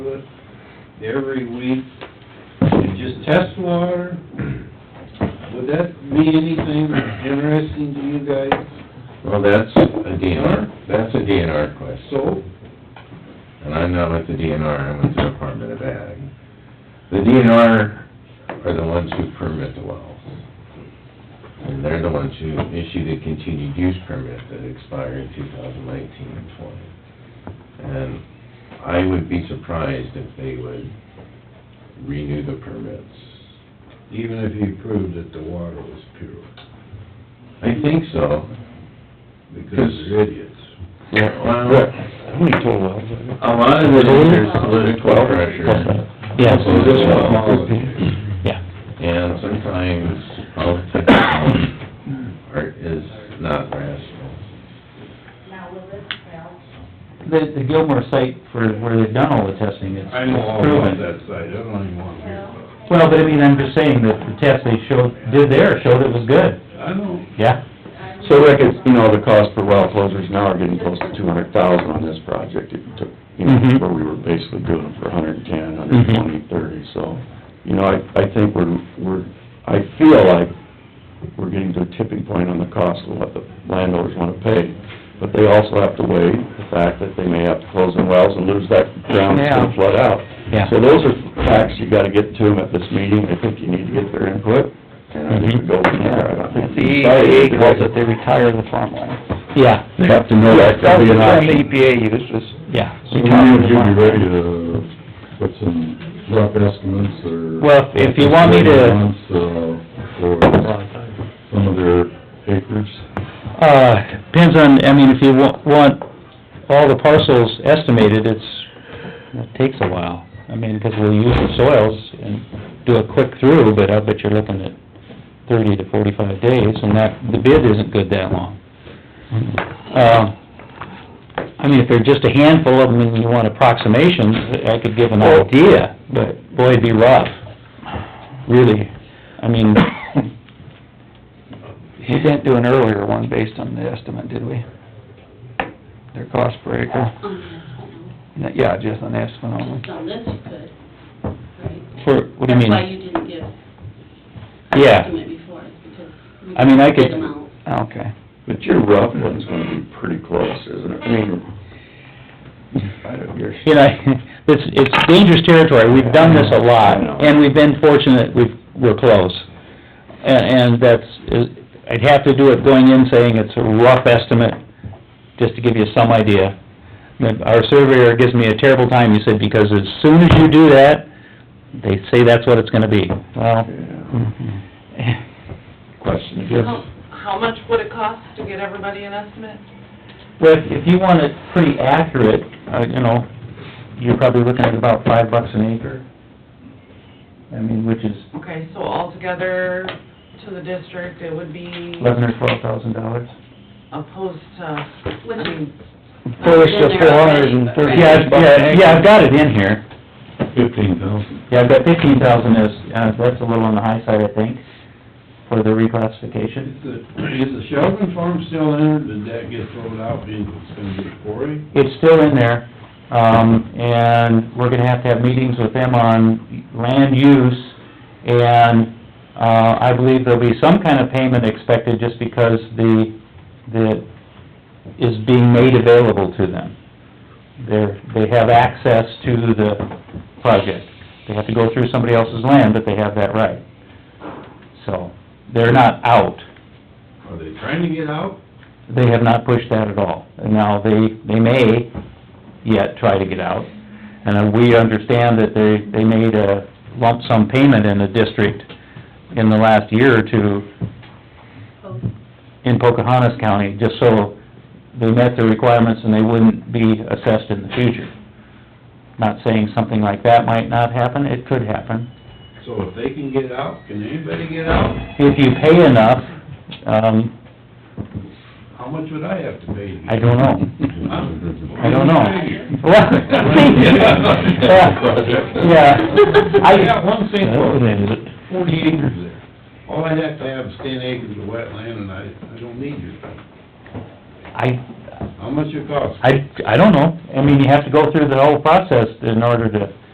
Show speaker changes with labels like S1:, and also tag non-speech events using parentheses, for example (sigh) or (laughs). S1: every week and just test water? Would that be anything interesting to you guys?
S2: Well, that's a DNR, that's a DNR question,
S1: So,
S2: and I'm not with the DNR, I'm with the Department of Ag. The DNR are the ones who permit the wells. And they're the ones who issue the continued use permit that expired in 2019 and 20. And I would be surprised if they would renew the permits.
S1: even if you proved that the water was pure,
S2: I think so.
S1: because they're idiots.
S2: Yeah,
S3: Well, How many total wells are there?
S2: A lot of it is there's political pressure.
S3: Yeah.
S2: So this one-
S3: Yeah.
S2: And sometimes politics are, is not rational.
S4: Now, will this fail?
S5: The, the Gilmore site for where they've done all the testing, it's
S1: I know all
S5: it's
S1: about
S5: proven.
S1: that site, I don't even want to hear about it.
S5: Well, but I mean, I'm just saying that the test they showed, did there, showed it was good,
S1: I know,
S5: yeah.
S3: So
S6: uh,
S3: like it's, you know, the cost per well closures now are getting close to two hundred thousand on this project. It took, you know,
S5: Mhm.
S3: where we were basically doing it for a hundred and ten, hundred and twenty, thirty, so. You know, I, I think we're, we're, I feel like we're getting to a tipping point on the cost of what the landowners wanna pay. But they also have to weigh the fact that they may have to close some wells and lose that ground that's gonna
S5: Yeah.
S3: flood out.
S5: Yeah.
S3: So those are facts you gotta get to them at this meeting. I think you need to get their input, and I think we go from there. I don't think.
S6: The
S3: we decide
S6: EPA
S3: either
S6: calls
S3: way.
S6: it, they retire the farmland.
S5: Yeah,
S3: They have to know that
S6: That
S3: could
S6: was
S3: be
S6: the
S3: an
S6: term the
S3: option.
S6: EPA used, was
S5: yeah.
S7: So when would you be ready to put some rough estimates or?
S5: Well, if you want me to,
S7: Months, uh, for some of their acres?
S5: uh, depends on, I mean, if you wa- want all the parcels estimated, it's, it takes a while. I mean, because we'll use the soils and do a quick through, but I bet you're looking at thirty to forty-five days, and that, the bid isn't good that long. Uh, I mean, if they're just a handful of them and you want approximations, I could give an idea, but boy, it'd be rough, really. I mean,
S6: We didn't do an earlier one based on the estimate, did we? Their cost per acre? N- Yeah, just an estimate only.
S4: On this you could, right?
S5: for, Uh-huh. what do you mean?
S4: That's why you didn't give an
S5: Yeah.
S4: estimate before, is because. we
S5: I mean, I could- Oh,
S4: did them out.
S6: Okay.
S3: But your rough one's gonna be pretty close, isn't it? I mean, I don't, you're,
S5: you know, (laughs) it's, it's dangerous territory, we've done this a
S3: I know.
S5: lot, and we've been fortunate, we've, we're close. And, and that's, uh, I'd have to do it going in saying it's a rough estimate, just to give you some idea. But Our surveyor gives me a terrible time, he said, because as soon as you do that, they say that's what it's gonna be. Well,
S3: yeah,
S5: Mm-hmm.
S3: question
S8: How-
S3: again.
S8: How much would it cost to get everybody an estimate?
S5: Well, if- if you want it pretty accurate, uh, you know, you're probably looking at about five bucks an acre. I mean, which is
S8: Okay, so altogether to the district, it would be
S5: eleven or twelve thousand dollars.
S8: opposed to,
S4: Which-
S8: I mean,
S6: Close to four
S4: Been there
S6: hundred
S4: already,
S6: and
S4: but-
S6: thirty
S5: Yeah,
S6: bucks an
S5: yeah,
S6: acre.
S5: yeah, I've got it in here.
S7: Fifteen thousand.
S5: Yeah, I've got fifteen thousand is, uh, that's a little on the high side, I think, for the reclassification.
S1: Is the, is the Sheldon farm still in, or did that get thrown out because it's gonna be a quarry?
S5: It's still in there, um, and we're gonna have to have meetings with them on land use, and, uh, I believe there'll be some kind of payment expected just because the, the, is being made available to them. They're, they have access to the project. They have to go through somebody else's land, but they have that right. So, they're not out
S1: Are they trying to get out?
S5: they have not pushed that at all. And now they, they may yet try to get out. And uh, we understand that they, they made a lump sum payment in the district in the last year or two
S4: Oh,
S5: in Pocahontas County, just so they met the requirements and they wouldn't be assessed in the future. Not saying something like that might not happen, it could happen.
S1: So if they can get out, can anybody get out?
S5: If you pay enough, um,
S1: How much would I have to pay to get out?
S5: I don't know.
S1: I
S5: I don't know. Well, (laughs) Yeah, I...
S1: I got one thing,
S5: Well,
S1: forty acres there. All I have to have is ten acres of wetland, and I, I don't need your thing.
S5: I,
S1: How much it costs?
S5: I, I don't know. I mean, you have to go through the whole process in order to...